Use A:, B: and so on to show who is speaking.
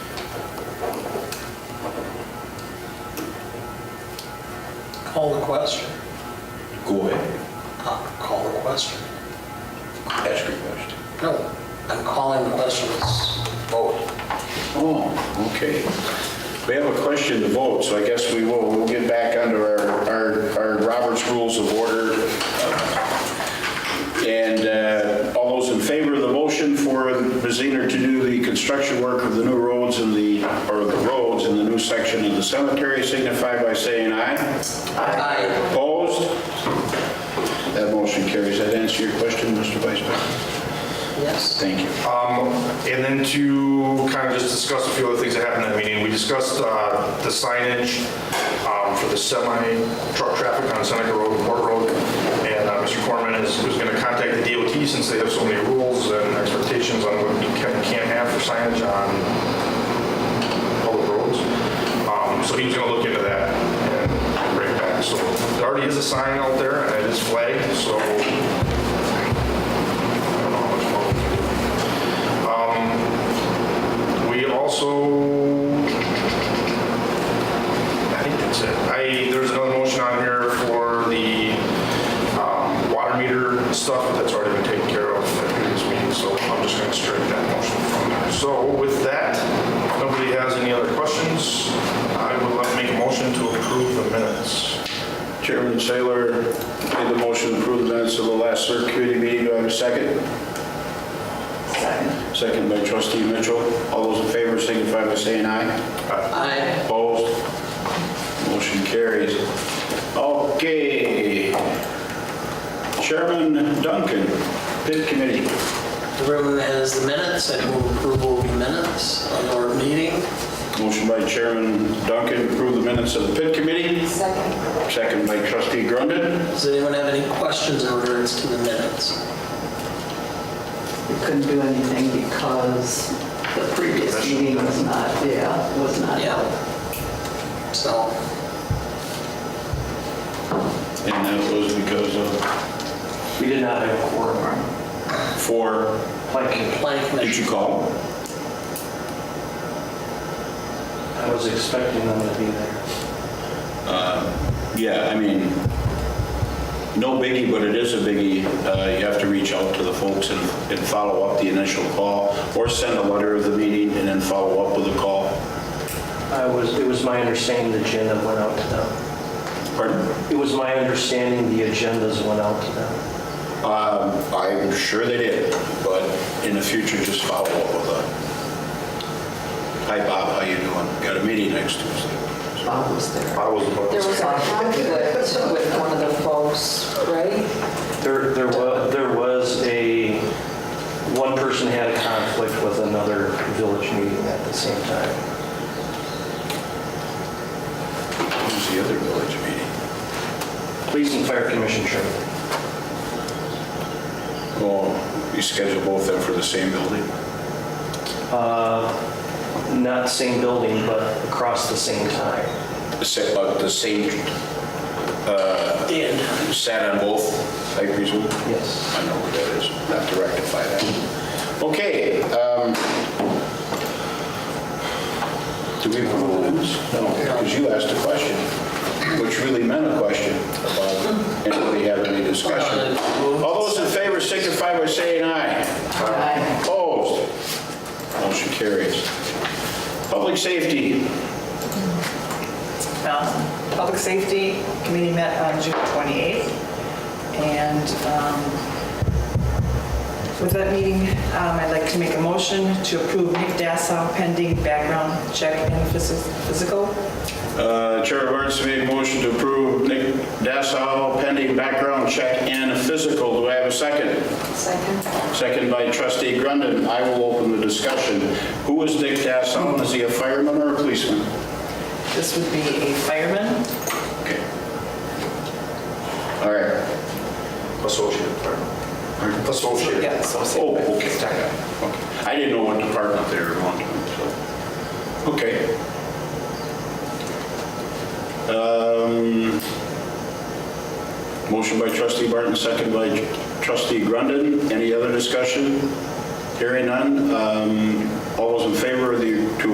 A: Call the question.
B: Go ahead,
A: Uh, Call the question.
B: ask your question.
A: No, I'm calling the question, it's vote.
B: Oh, okay. We have a question to vote, so I guess we will, we'll get back under our, our, our Robert's Rules of Order. And uh, all those in favor of the motion for Baziner to do the construction work of the new roads in the, or the roads in the new section of the cemetery signify by saying aye.
A: Aye.
B: Opposed? That motion carries. That answer your question, Mr. Vice President?
A: Yes.
B: Thank you.
C: And then to kind of just discuss a few other things that happened at that meeting, we discussed uh, the signage um, for the semi truck traffic on Seneca Road and Port Road. And uh, Mr. Corman is, was going to contact the DOT since they have so many rules and expectations on what you can and can't have for signage on public roads. Um, So he was going to look into that and bring it back. So there already is a sign out there and it is flagged, so I don't know how much more we can do. We also, I think that's it. I, there's another motion on here for the um, water meter stuff, but that's already been taken care of at previous meeting, so I'm just going to strike that motion from there. So with that, if nobody has any other questions, I would like to make a motion to approve the minutes.
B: Chairman Saylor made the motion to approve the minutes of the last CERC committee meeting. Do I have a second? Second. Second by trustee Mitchell. All those in favor signify by saying aye.
A: Aye.
B: Opposed? Motion carries. Okay. Chairman Duncan, pit committee.
A: The room has the minutes, I move approval of the minutes of our meeting.
B: Motion by Chairman Duncan to approve the minutes of the pit committee.
D: Second.
B: Second by trustee Grundon.
A: Does anyone have any questions in regards to the minutes?
D: We couldn't do anything because the previous meeting was not, yeah, was not
A: Yeah.
D: held.
A: So,
B: And that was because of
E: We did not have a quorum.
B: four,
E: Like,
A: planning
B: did
A: commission.
B: you call?
E: I was expecting them to be there.
B: Yeah, I mean, no biggie, but it is a biggie. Uh, You have to reach out to the folks and and follow up the initial call, or send a letter of the meeting and then follow up with a call.
E: I was, it was my understanding the agenda went out to them.
B: Pardon?
E: It was my understanding the agendas went out to them.
B: Um, I'm sure they did, but in the future, just follow up with a, hi Bob, how you doing? Got a meeting next Tuesday.
D: Bob was there.
C: I was opposed.
F: There was a conflict with one of the folks, right?
E: There, there was, there was a, one person had a conflict with another village meeting at the same time.
B: Who's the other village meeting?
E: Police and Fire Commission training.
B: Oh, you schedule both of them for the same building?
E: Not same building, but across the same time.
B: The sa- uh, The uh, same
A: Did.
B: sat on both, I presume?
E: Yes.
B: I know what that is, not to rectify that. Okay. um, Do we have rules? No, because you asked a question, which really meant a question about anybody have any discussion. All those in favor signify by saying aye.
D: Aye.
B: Opposed? Motion carries. Public safety,
G: Um, Public Safety Committee met on June 28th, and um, with that meeting, um, I'd like to make a motion to approve Nick Dassow pending background check and phys- physical.
B: Uh, Chair of Arts made a motion to approve Nick Dassow pending background check and a physical. Do I have a second?
F: Second.
B: Second by trustee Grundon. I will open the discussion. Who is Nick Dassow? Is he a fireman or a policeman?
G: This would be a fireman.
B: Okay. All right.
C: Associate, pardon. Associate.
G: Yeah, associate.
B: Oh, okay. Okay. I didn't know what department they were going to, so, okay. Um, Motion by trustee Barton, second by trustee Grundon. Any other discussion? Hearing none. Um, All those in favor of the, to